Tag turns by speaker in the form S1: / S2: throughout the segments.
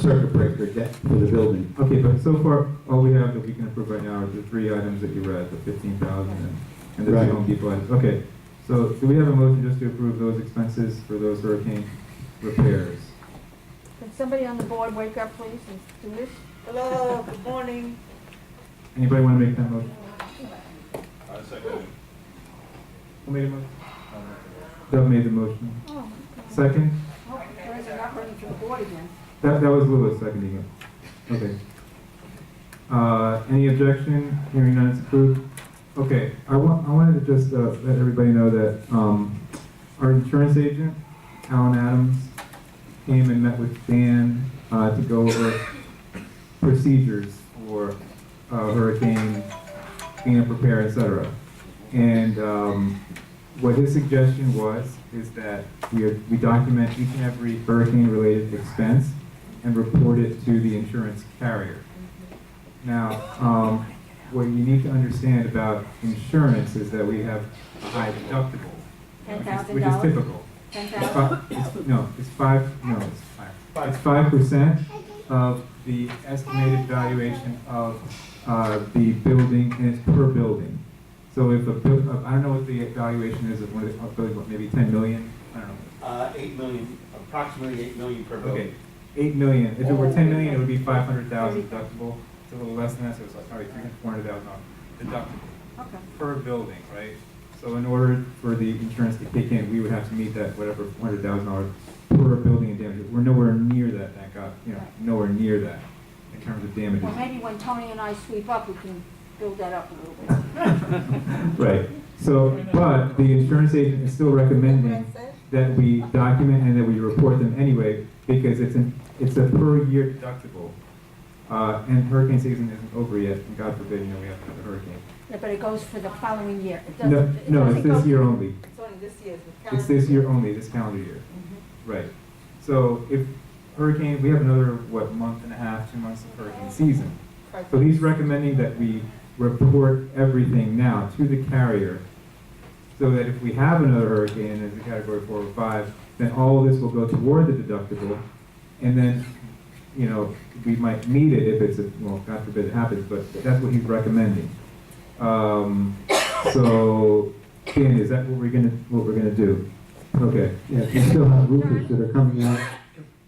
S1: circuit breaker debt for the building.
S2: Okay, but so far, all we have that we can approve right now are the three items that you read, the fifteen thousand and the
S1: Right.
S2: two Home Depot items. Okay, so do we have a motion just to approve those expenses for those hurricane repairs?
S3: Can somebody on the board wake up, please, and do this?
S4: Hello, good morning.
S2: Anybody want to make that motion?
S5: I second.
S2: Who made the motion? Doug made the motion.
S3: Oh,
S2: Second?
S3: oh, there's a number for the board again.
S2: That, that was Louis seconding it. Okay. Uh, any objection? Hearing none, it's approved. Okay, I want, I wanted to just, uh, let everybody know that, um, our insurance agent, Alan Adams, came and met with Dan, uh, to go over procedures for, uh, hurricane, being prepared, et cetera. And, um, what his suggestion was, is that we, we document each and every hurricane-related expense and report it to the insurance carrier. Now, um, what you need to understand about insurance is that we have a high deductible.
S3: Ten
S2: which is-
S3: thousand
S2: Which is
S3: dollars?
S2: typical.
S3: Ten
S2: It's
S3: thousand?
S2: fi- it's- No, it's five, no, it's five. It's five percent of the estimated valuation of, uh, the building, and it's per building. So if a, buil- uh, I don't know what the valuation is of one of the, of building, but maybe ten million, I don't know.
S5: Uh, eight million, approximately eight million per
S2: Okay,
S5: building.
S2: eight million, if it were ten million, it would be five hundred thousand deductible, it's a little less than that, so it's like, probably three, four hundred thousand dollars deductible
S3: Okay.
S2: per building, right? So in order for the insurance to kick in, we would have to meet that whatever, four hundred thousand dollars per building in damages, we're nowhere near that, thank God, you know, nowhere near that in terms of damages.
S3: Well, maybe when Tony and I sweep up, we can build that up a little bit.
S2: Right, so, but the insurance agent is still recommending that we document and that we report them anyway, because it's an, it's a per year deductible. Uh, and hurricane season isn't over yet, and God forbid, you know, we have another hurricane.
S3: Yeah, but it goes for the following year. It
S2: No,
S3: doesn't- it
S2: no,
S3: doesn't
S2: it's
S3: go-
S2: this year only,
S4: It's only this year's.
S2: it's this year only, this calendar year.
S3: Mm-hmm.
S2: Right, so if hurricane, we have another, what, month and a half, two months of hurricane season. So he's recommending that we report everything now to the carrier, so that if we have another hurricane as a category four or five, then all of this will go toward the deductible, and then, you know, we might need it if it's, a well, God forbid it happens, but that's what he's recommending. Um, so, Dan, is that what we're gonna, what we're gonna do? Okay,
S1: Yeah, you still have roofers that are coming out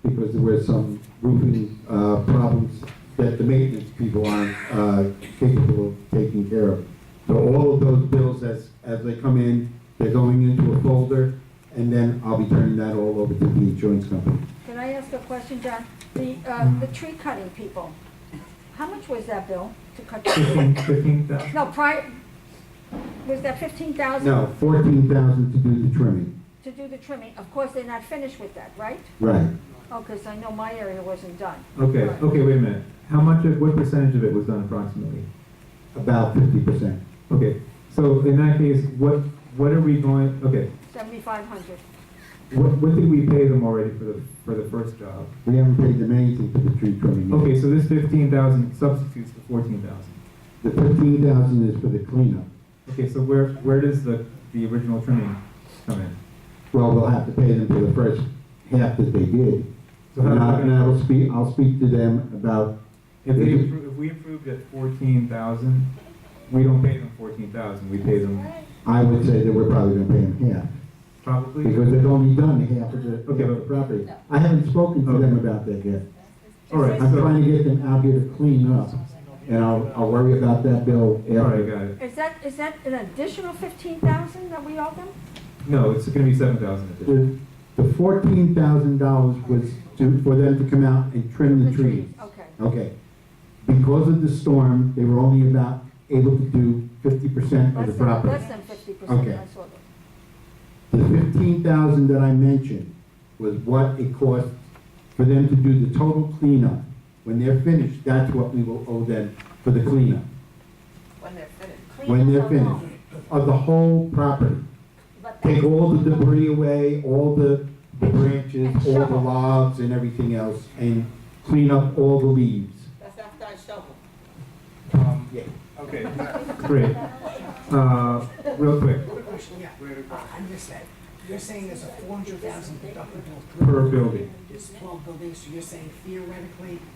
S1: because there were some roofing, uh, problems that the maintenance people aren't, uh, capable of taking care of. So all of those bills as, as they come in, they're going into a folder, and then I'll be turning that all over to the insurance company.
S3: Can I ask a question, John? The,
S2: Mm.
S3: uh, the tree cutting people, how much was that bill to cut? the tree?
S2: fifteen, fifteen thousand?
S3: No, prior, was that fifteen thousand?
S1: No, fourteen thousand to do the trimming,
S3: To do the trimming, of course, they're not finished with that, right?
S1: right.
S3: Oh, because I know my area wasn't done.
S2: Okay, okay, wait a minute, how much of, what percentage of it was done approximately?
S1: About fifty percent.
S2: Okay, so in that case, what, what are we going, okay,
S3: Seventy-five hundred.
S2: what, what did we pay them already for the, for the first job?
S1: We haven't paid them anything for the tree trimming. yet.
S2: Okay, so this fifteen thousand substitutes the fourteen thousand.
S1: The fifteen thousand is for the cleanup.
S2: Okay, so where, where does the, the original trimming come in?
S1: Well, we'll have to pay them for the first half that they did.
S2: So how-
S1: And I- and I will speak, I'll speak to them about,
S2: If they, appro- if we approved at fourteen thousand, we don't pay them fourteen thousand, we pay them
S1: I would say that we're probably gonna pay them half,
S2: probably,
S1: because they've only done half of the, half of
S2: Okay,
S1: the
S2: but-
S1: property. I haven't spoken to them about that yet.
S2: all right,
S1: I'm
S2: so,
S1: trying to get them out here to clean up, and I'll, I'll worry about that bill
S2: all right,
S1: after.
S2: got it.
S3: Is that, is that an additional fifteen thousand that we owe them?
S2: No, it's gonna be seven thousand.
S1: The, the fourteen thousand dollars was to, for them to come out and trim the trees.
S3: Okay,
S1: Okay. Because of the storm, they were only about able to do fifty percent of the
S3: less than,
S1: property.
S3: less than fifty percent,
S1: Okay.
S3: I saw that.
S1: The fifteen thousand that I mentioned was what it cost for them to do the total cleanup. When they're finished, that's what we will owe them for the cleanup,
S4: When they're finished.
S1: when they're
S3: Clean it
S1: finished, of the whole property.
S3: But
S1: Take
S3: that-
S1: all the debris away, all the branches,
S3: And
S1: all the
S3: shovel.
S1: logs and everything else, and clean up all the leaves.
S4: That's after I shovel.
S2: Um,
S1: Yeah.
S2: Okay, great. Uh, real quick.
S6: You're saying there's a four hundred thousand deductible
S2: per building.
S6: It's twelve buildings, so you're saying theoretically,